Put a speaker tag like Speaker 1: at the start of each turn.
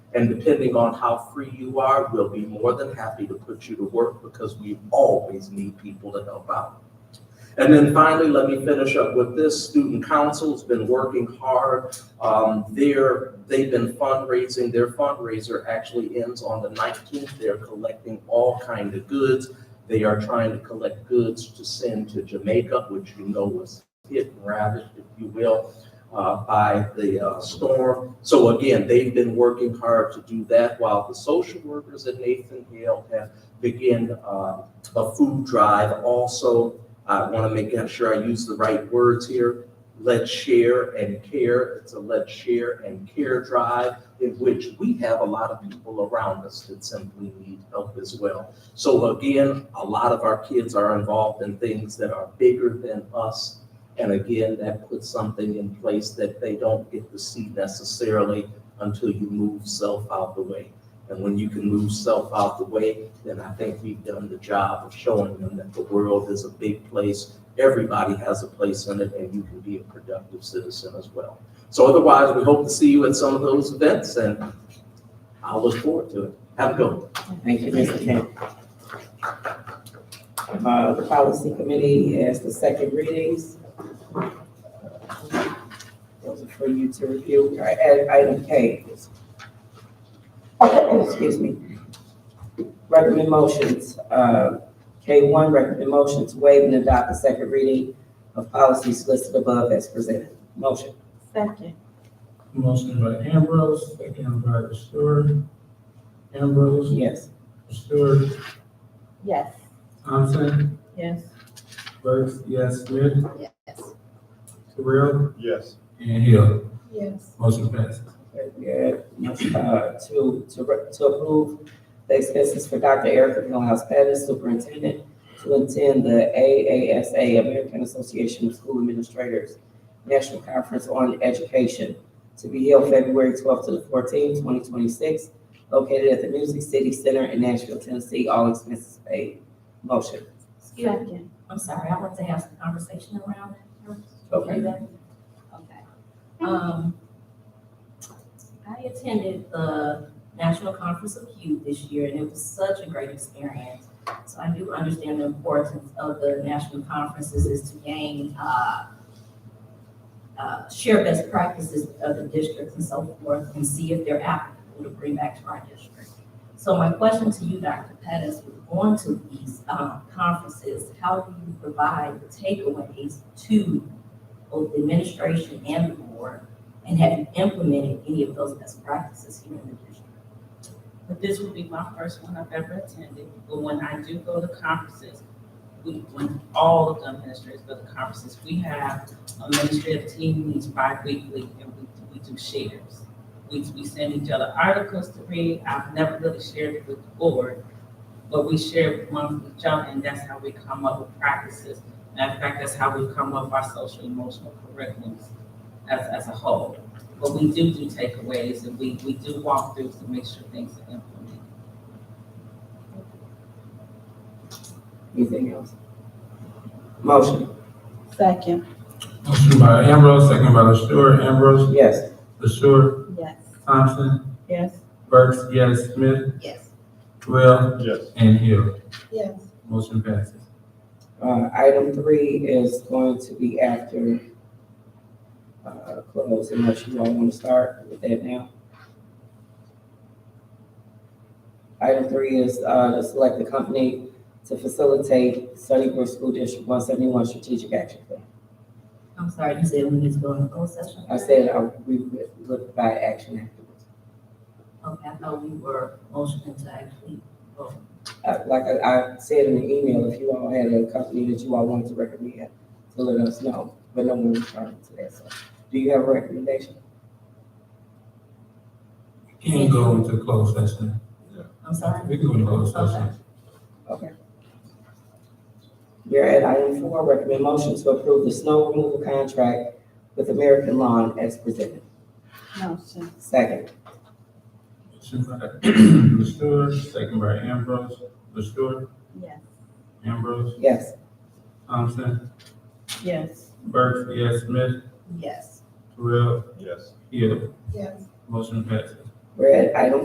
Speaker 1: And depending on how free you are, we'll be more than happy to put you to work because we always need people to help out. And then finally, let me finish up with this. Student Council's been working hard. Um, they're, they've been fundraising. Their fundraiser actually ends on the nineteenth. They're collecting all kind of goods. They are trying to collect goods to send to Jamaica, which you know was hit and ravaged, if you will, uh, by the uh, storm. So again, they've been working hard to do that while the social workers at Nathan Hale have begun uh, a food drive also. I want to make sure I use the right words here. Let's share and care. It's a let's share and care drive in which we have a lot of people around us that simply need help as well. So again, a lot of our kids are involved in things that are bigger than us and again, that puts something in place that they don't get to see necessarily until you move self out the way. And when you can move self out the way, then I think we've done the job of showing them that the world is a big place. Everybody has a place in it and you can be a productive citizen as well. So otherwise, we hope to see you at some of those events and I'll look forward to it. Have a good one.
Speaker 2: Thank you, Mr. Kemp. Uh, the policy committee has the second readings. Those are for you to review, All right, and item K. is- Excuse me. Recommend motions, uh, K one, recommend motions, waive and adopt the second reading of policies listed above as presented. Motion,
Speaker 3: Second.
Speaker 4: Motion by Ambrose, second by Stewart. Ambrose,
Speaker 2: yes.
Speaker 4: Stewart,
Speaker 3: Yes.
Speaker 4: Thompson,
Speaker 3: Yes.
Speaker 4: Burks, yes, Smith,
Speaker 3: Yes.
Speaker 4: Terrell,
Speaker 5: Yes.
Speaker 4: and Hill.
Speaker 3: Yes.
Speaker 4: Motion passes.
Speaker 2: Yeah, uh, to, to, re- to approve the expenses for Dr. Erica Hillhouse Pettis, Superintendent, to attend the AASA, American Association of School Administrators, National Conference on Education, to be held February twelfth to the fourteenth, twenty twenty-six, located at the Music City Center in Nashville, Tennessee, all expenses paid. Motion.
Speaker 6: Excuse me,
Speaker 3: Second.
Speaker 6: I'm sorry, I want to have some conversation around it.
Speaker 2: Okay.
Speaker 6: Okay. Um, I attended the National Conference of Youth this year, and it was such a great experience. So I do understand the importance of the national conferences is to gain, uh, uh, share best practices of the districts and so forth, and see if they're applicable to bring back to our district. So my question to you, Dr. Pettis, with going to these, um, conferences, how do you provide takeaways to both the administration and the board, and have you implemented any of those best practices here in the district?
Speaker 7: But this will be my first one I've ever attended, but when I do go to conferences, we, when all of the administrators go to conferences, we have administrative team meetings bi-weekly, and we, we do shares. We, we send each other articles to read, I've never really shared it with the board, but we share one with each other, and that's how we come up with practices. Matter of fact, that's how we come up with our social emotional curriculums as, as a whole. But we do do takeaways and we, we do walkthroughs to make sure things are implemented.
Speaker 2: Anything else? Motion,
Speaker 3: Second.
Speaker 4: Motion by Ambrose, second by Stewart. Ambrose,
Speaker 2: yes.
Speaker 4: Stewart,
Speaker 3: Yes.
Speaker 4: Thompson,
Speaker 3: Yes.
Speaker 4: Burks, yes, Smith,
Speaker 3: Yes.
Speaker 4: Terrell,
Speaker 5: Yes.
Speaker 4: and Hill.
Speaker 3: Yes.
Speaker 4: Motion passes.
Speaker 2: Uh, item three is going to be after, uh, close, unless you all want to start with that now. Item three is, uh, to select the company to facilitate Sunnybrook School District one seventy-one strategic action plan.
Speaker 6: I'm sorry, you said we need to go into closed session?
Speaker 2: I said, uh, we would look by action afterwards.
Speaker 6: Okay, I thought we were motioning to actually, vote.
Speaker 2: Uh, like I, I said in the email, if you all had a company that you all wanted to recommend, to let us know, but no one responded to that, so. Do you have a recommendation?
Speaker 4: Can go into closed session.
Speaker 6: I'm sorry.
Speaker 4: We can go into closed session.
Speaker 2: We are at item four, recommend motion to approve the snow removal contract with American Lawn as presented.
Speaker 3: Motion.
Speaker 2: Second,
Speaker 4: Motion by Stewart, second by Ambrose, Stewart,
Speaker 3: Yes.
Speaker 4: Ambrose,
Speaker 2: yes.
Speaker 4: Thompson,
Speaker 3: Yes.
Speaker 4: Burks, yes, Smith,
Speaker 6: Yes.
Speaker 4: Terrell,
Speaker 5: Yes.
Speaker 4: Hill.
Speaker 3: Yes.
Speaker 4: Motion passes.
Speaker 2: We're at item